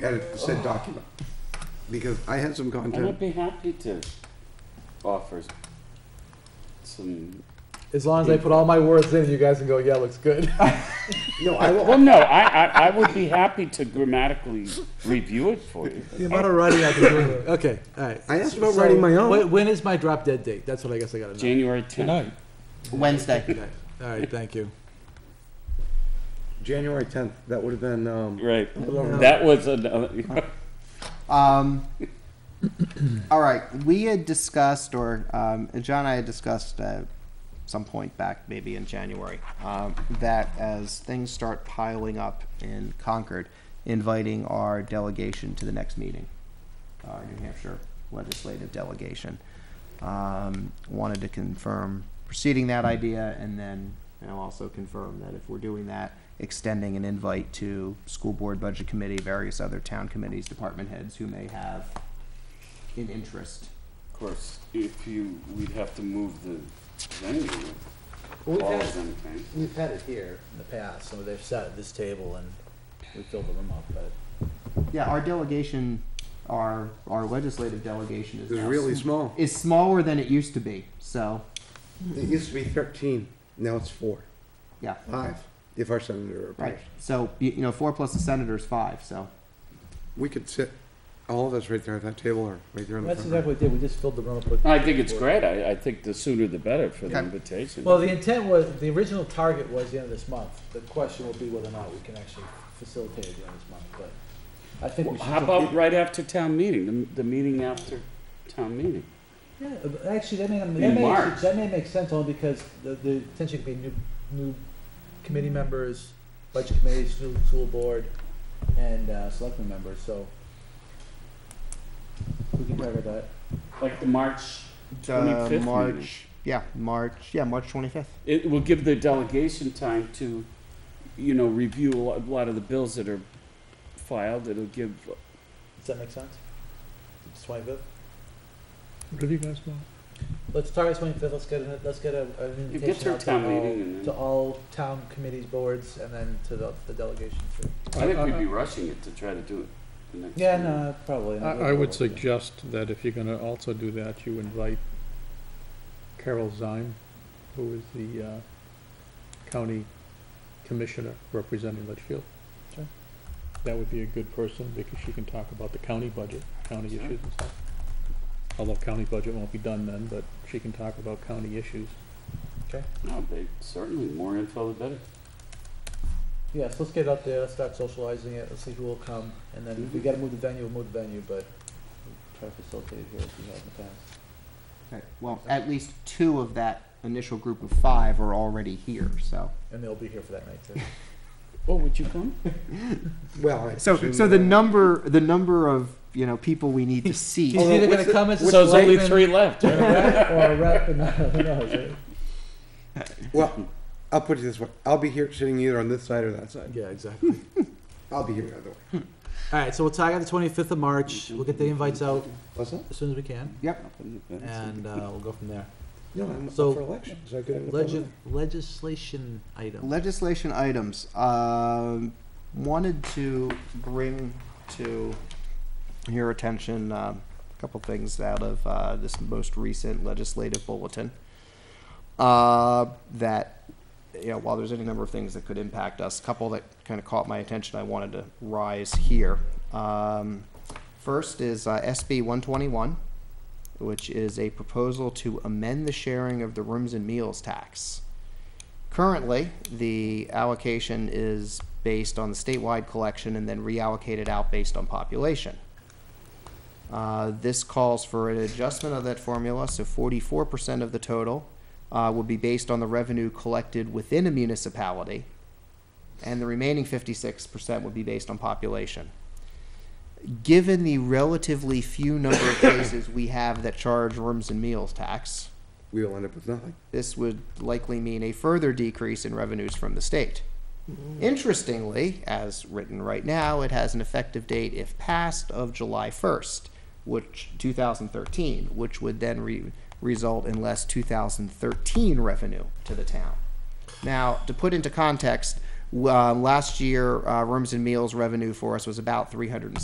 edit the Oh. said document. Because I had some And I'd content, be happy to offer some, As long as I put all my words in, you guys can go, yeah, looks good. no, I will, well, no, I, I, I would be happy to grammatically review it for you. the amount of writing I've been doing. Okay, all right. I asked about writing my own. When, when is my drop dead date? That's what I guess I gotta know. January tenth. Wednesday. Okay. All right, thank you. January tenth, that would have been, um, Right, No. that was uh, another, Um, all right, we had discussed, or um, John and I had discussed at some point back, maybe in January, um, that as things start piling up in Concord, inviting our delegation to the next meeting, our uh, New Hampshire legislative delegation. Um, wanted to confirm preceding that idea, and then you know, also confirm that if we're doing that, extending an invite to school board, budget committee, various other town committees, department heads who may have an interest. of course, if you, we'd have to move the venue, We've or had, something. we've had it here. in the past, so they've sat at this table and we filled the room up, but Yeah, our delegation, our our legislative delegation is it was now really sm- small. is smaller than it used to be. So It used to be thirteen, now it's four, yeah, five, if our senator right. appears. So you, you know, four plus the senator is five. So We could sit, all of us right there at that table or right there in the that's front. exactly row. what we did, we just filled the room up with. I think it's great, I, I think the sooner the better for the Okay. invitation. Well, the intent was, the original target was the end of this month, the question will be whether or not we can actually facilitate it the end of this month, but I think we should. How about right after town meeting, the, the meeting after town meeting? Yeah, but Actually, that may, that In may, March. that may make sense only because the, the potential could be new, new committee members, budget committees, new school board, and, uh, selectmen members, so. We can target that. Like the March uh, 25th March, meeting. yeah, March, yeah, March twenty fifth. It will give the delegation time to, you know, review a lot, a lot of the bills that are filed. It'll give, Does that make sense? It's twenty-fifth? Whatever you guys want. Let's target twenty-fifth, let's get, a- let's get a, an you get invitation their out to town all, meeting and to then. all town committees, boards, and then to the, the delegation too. I think we'd be rushing it to try to do it the next. Yeah, meeting. no, probably. I, I would suggest that if you're gonna also do that, you invite Carol Zime, who is the, uh, county commissioner representing Litchfield. Sure. That would be a good person, because she can talk about the county budget, county Sure. issues and stuff. Although county budget won't be done then, but she can talk about county issues. No, they, certainly, more info the better. Yes, let's get out there, let's start socializing it, let's see who will come, and then if we gotta move the venue, we'll move the venue, but we'll try to facilitate it here as we have in the past. Okay. Well, at least two of that initial group of five are already here. So And they'll be here for that night too. Oh, would you come? Well, I so assume so the that- number the number of you know people we need to see. He's either gonna come as a So there's only selectman three left. or a rep, or a rep, and who knows, right? Well, I'll put it this way, I'll be here sitting either on this side or that side. Yeah, exactly. I'll be here either way. All right, so we'll target the twenty-fifth of March. We'll get the invites out What's that? as soon as we can, Up in the fence. and, uh, we'll go from there. No, I'm up So, for election, so I couldn't. Legis- legislation item. legislation items um, wanted to bring to your attention um, a couple things out of uh, this most recent legislative bulletin uh, that you know while there's any number of things that could impact us a couple that kind of caught my attention i wanted to rise here um, first is uh, sb 121 which is a proposal to amend the sharing of the rooms and meals tax Currently, the allocation is based on the statewide collection and then reallocated out based on population. Uh, This calls for an adjustment of that formula, so forty-four percent of the total uh, would be based on the revenue collected within a municipality, and the remaining fifty-six percent would be based on population. Given the relatively few number of places we have that charge rooms and meals tax, We will end up with nothing. this would likely mean a further decrease in revenues from the state. Interestingly, as written right now, it has an effective date, if passed, of July 1st, which 2013, which would then re- result in less 2013 revenue to the town. Now, to put into context, w- uh, last year, uh, rooms and meals revenue for us was about 360.